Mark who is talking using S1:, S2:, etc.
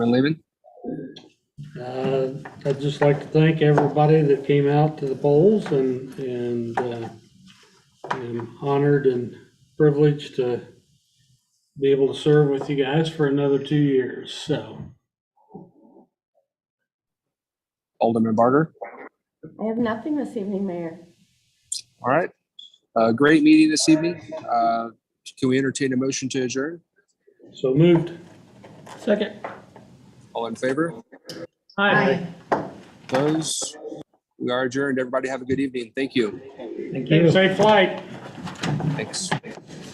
S1: Selectman Lehman?
S2: Uh, I'd just like to thank everybody that came out to the polls and, and uh, I'm honored and privileged to be able to serve with you guys for another two years, so.
S1: Alderman Barter?
S3: I have nothing this evening, Mayor.
S1: All right. Uh, great meeting this evening. Uh, can we entertain a motion to adjourn?
S2: So moved.
S4: Second.
S1: All in favor?
S4: Hi.
S1: Opposed? We are adjourned. Everybody have a good evening. Thank you.
S4: Thank you.
S2: Safe flight.
S1: Thanks.